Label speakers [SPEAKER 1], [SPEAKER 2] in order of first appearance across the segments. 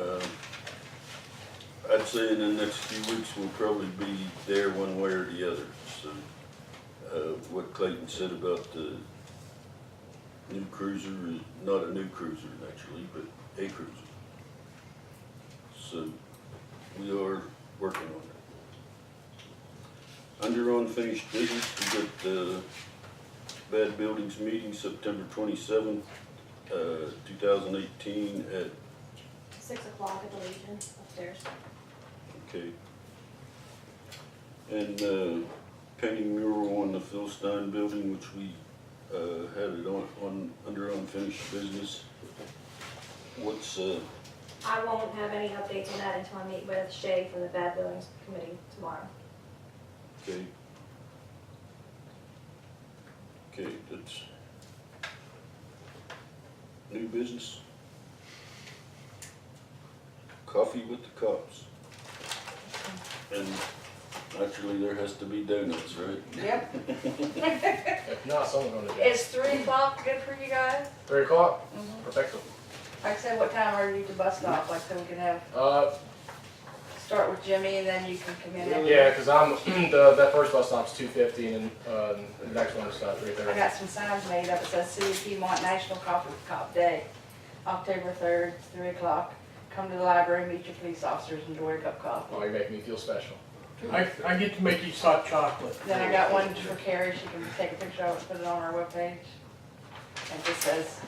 [SPEAKER 1] Um, I'd say in the next few weeks, we'll probably be there one way or the other, so. Uh, what Clayton said about the new cruiser, is not a new cruiser actually, but a cruiser. So, we are working on it. Under unfinished business, we got the Bad Buildings meeting September twenty-seventh, uh, two thousand eighteen at
[SPEAKER 2] Six o'clock at the Legion upstairs.
[SPEAKER 1] Okay. And, uh, painting mural on the Philstein building, which we, uh, had it on, on, under unfinished business. What's, uh,
[SPEAKER 2] I won't have any updates on that until I meet with Shay from the Bad Buildings Committee tomorrow.
[SPEAKER 1] okay? Okay, that's. New business? Coffee with the cops. And actually, there has to be donuts, right?
[SPEAKER 3] Yep,
[SPEAKER 4] If not, someone's gonna do it.
[SPEAKER 5] Is three o'clock good for you guys?
[SPEAKER 4] Three o'clock, perfecto.
[SPEAKER 3] like I said, what time are you to bus stop, like so we can have,
[SPEAKER 4] Uh,
[SPEAKER 3] start with Jimmy and then you can come in.
[SPEAKER 4] yeah, cause I'm, the, that first bus stop's two fifty and, then, uh, the next one is uh three
[SPEAKER 3] I
[SPEAKER 4] thirty.
[SPEAKER 3] got some signs made up, it says City of Piedmont National Coffee Cop Day, October third, three o'clock. Come to the library, meet your police officers, enjoy a cup of coffee.
[SPEAKER 4] Oh, you make me feel special.
[SPEAKER 6] I, I get to make these hot chocolate.
[SPEAKER 3] Then I got one for Carrie, she can take a picture of it, put it on our webpage. And it just says,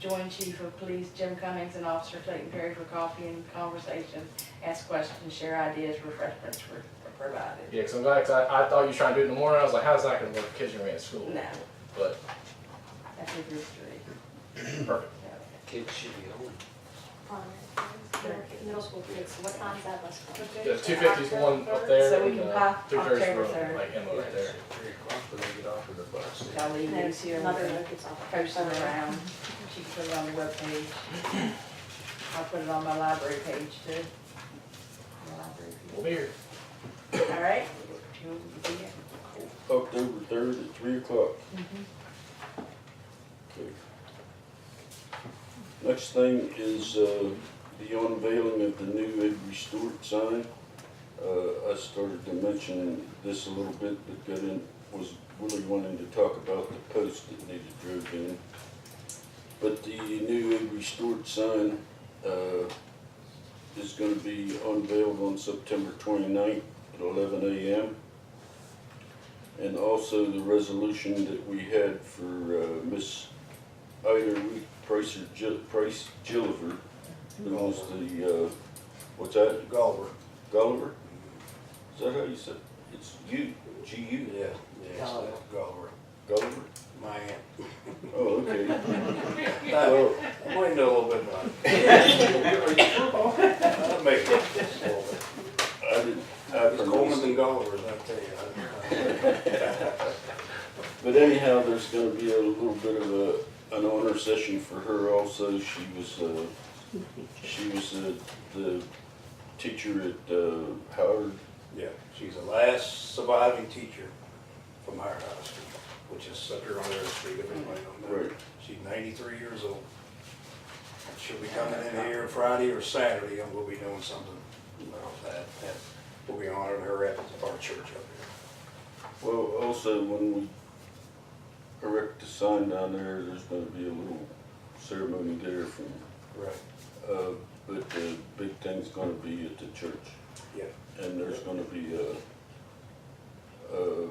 [SPEAKER 3] join Chief of Police Jim Cummings and Officer Clayton Perry for coffee and conversation, ask questions, share ideas, refreshments were were provided.
[SPEAKER 4] Yeah, cause I'm glad, cause I, I thought you were trying to do it in the morning, I was like, how's that gonna work, kids are gonna be at school,
[SPEAKER 3] No,
[SPEAKER 4] but
[SPEAKER 3] that's a group three.
[SPEAKER 4] perfect.
[SPEAKER 7] Kids should be home.
[SPEAKER 2] Um, Middle school kids, what time's that bus? going?
[SPEAKER 4] Yeah, two fifty's the one up there
[SPEAKER 3] So we
[SPEAKER 4] and,
[SPEAKER 3] can
[SPEAKER 4] uh,
[SPEAKER 3] pop
[SPEAKER 4] three thirty's the
[SPEAKER 3] October
[SPEAKER 4] one,
[SPEAKER 3] third.
[SPEAKER 4] like Emma right there.
[SPEAKER 7] Three o'clock when they get off of the bus.
[SPEAKER 3] I'll leave
[SPEAKER 2] And
[SPEAKER 3] these here,
[SPEAKER 2] then
[SPEAKER 3] we
[SPEAKER 2] Mother
[SPEAKER 3] can
[SPEAKER 2] Lode gets off.
[SPEAKER 3] post them around, she can put it on the webpage. I'll put it on my library page too. My library
[SPEAKER 4] We'll be here.
[SPEAKER 3] page. All right? You will be here?
[SPEAKER 1] October third at three o'clock. Okay. Next thing is, uh, the unveiling of the new Ed Restored sign. Uh, I started to mention this a little bit, but got in, was really wanting to talk about the post that needed drilled in. But the new Ed Restored sign, uh, is gonna be unveiled on September 29th at eleven AM. And also the resolution that we had for uh, Miss Ida Ruth Pricer, Gil- Price Gilliver, who was the, uh, what's that,
[SPEAKER 7] Gulliver.
[SPEAKER 1] Gulliver? Is that how you said, it? it's you, G U,
[SPEAKER 7] Yeah, yeah, so Gulliver.
[SPEAKER 1] Gulliver?
[SPEAKER 7] My aunt.
[SPEAKER 1] Oh, okay.
[SPEAKER 7] Well, I might know a little bit about it. I'll make that just a little bit. Uh,
[SPEAKER 1] I didn't, I
[SPEAKER 7] It's Coleman
[SPEAKER 1] pronounced
[SPEAKER 7] and
[SPEAKER 1] it.
[SPEAKER 7] Gulliver's, I tell you.
[SPEAKER 1] But anyhow, there's gonna be a little bit of a, an honor session for her also. She was, uh, she was uh, the teacher at uh, Howard
[SPEAKER 7] Yeah, she's the last surviving teacher from our high school, which is such a honor to speak of anybody on that.
[SPEAKER 1] Right.
[SPEAKER 7] She's ninety-three years old. And She'll be coming in here Friday or Saturday, and we'll be doing something about that. And We'll be honoring her at our church up here.
[SPEAKER 1] Well, also, when we erect the sign down there, there's gonna be a little ceremony there from,
[SPEAKER 7] Right.
[SPEAKER 1] uh, but the big thing's gonna be at the church.
[SPEAKER 7] Yeah.
[SPEAKER 1] And there's gonna be a, a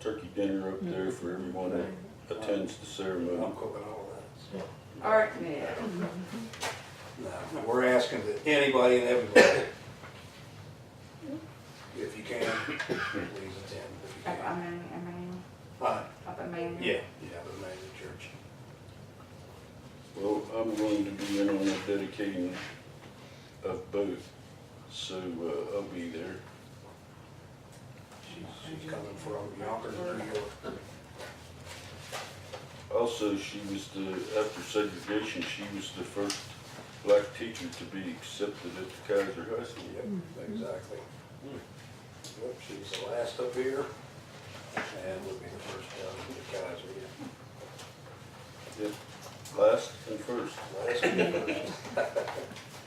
[SPEAKER 1] turkey dinner up there for everyone that attends the
[SPEAKER 7] I'm
[SPEAKER 1] ceremony.
[SPEAKER 7] cooking all that.
[SPEAKER 3] Art man.
[SPEAKER 7] No, we're asking that anybody and everybody, if you can, please attend. if you
[SPEAKER 3] Up
[SPEAKER 7] can.
[SPEAKER 3] Emmanuel, Emmanuel,
[SPEAKER 7] Uh,
[SPEAKER 3] up Emmanuel.
[SPEAKER 7] Yeah, yeah, the main church.
[SPEAKER 1] Well, I'm going to be in on the dedicating of both, so, uh, I'll be there.
[SPEAKER 7] She's, she's coming from Yonkers, New York.
[SPEAKER 1] Also, she was the, after segregation, she was the first black teacher to be accepted at the Kaiser High School.
[SPEAKER 7] Yep, exactly. Yep, she's the last up here, and would be the first down in the Kaiser, yeah.
[SPEAKER 1] Last and first.
[SPEAKER 7] Last and first.